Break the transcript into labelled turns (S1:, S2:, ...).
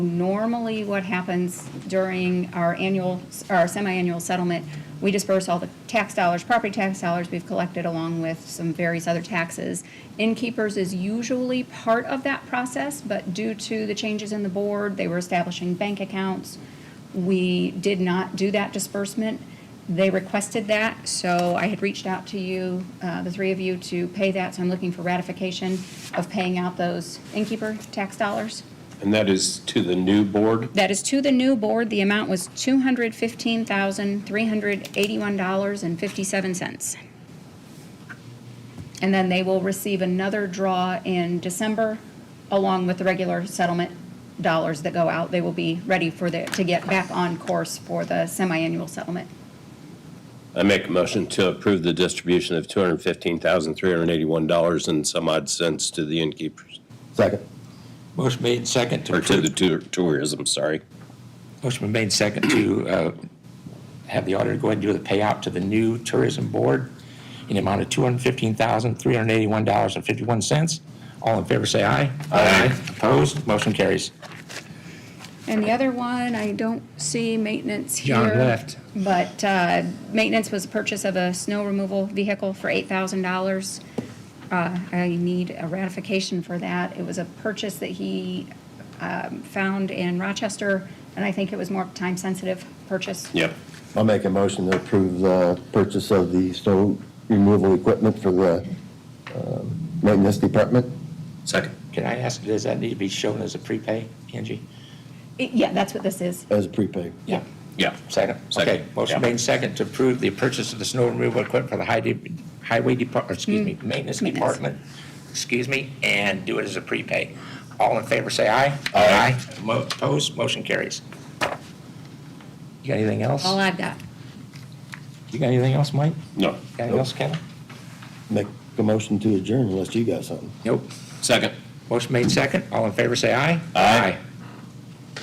S1: Normally, what happens during our annual, our semi-annual settlement, we disperse all the tax dollars, property tax dollars we've collected along with some various other taxes. Innkeepers is usually part of that process, but due to the changes in the board, they were establishing bank accounts. We did not do that disbursement. They requested that, so I had reached out to you, uh, the three of you, to pay that. So I'm looking for ratification of paying out those innkeeper tax dollars.
S2: And that is to the new board?
S1: That is to the new board. The amount was $215,381.57. And then they will receive another draw in December, along with the regular settlement dollars that go out. They will be ready for the, to get back on course for the semi-annual settlement.
S2: I make a motion to approve the distribution of $215,381 and some odd cents to the innkeepers,
S3: Second.
S4: Motion made second to
S2: or to the
S4: approve.
S2: tour- tourism, sorry.
S4: Motion been made second to uh, have the auditor go ahead and do the payout to the new tourism board in the amount of $215,381.51. All in favor, say aye. Aye. Opposed? Motion carries.
S1: And the other one, I don't see maintenance here.
S5: John left.
S1: But uh, maintenance was purchase of a snow removal vehicle for $8,000. Uh, I need a ratification for that. It was a purchase that he um, found in Rochester, and I think it was more time-sensitive purchase.
S2: Yep.
S3: I'll make a motion to approve the purchase of the snow removal equipment for the um, maintenance department.
S2: Second.
S4: Can I ask, does that need to be shown as a prepay, Angie?
S1: It- Yeah, that's what this is.
S3: As prepaid.
S4: Yeah.
S2: Yeah.
S4: Second.
S2: Second.
S4: Okay. Motion
S2: Yeah.
S4: made second to approve the purchase of the snow removal equipment for the high de- highway department, excuse me, maintenance
S1: Mm. Maintenance.
S4: department, excuse me, and do it as a prepay. All in favor, say aye. Aye. Mo- Opposed, motion carries. You got anything else?
S1: All I've got.
S4: You got anything else, Mike?
S2: No.
S4: Got anything else, Kevin?
S3: Make a motion to adjourn unless you got something.
S4: Nope.
S2: Second.
S4: Motion made second. All in favor, say aye.
S2: Aye.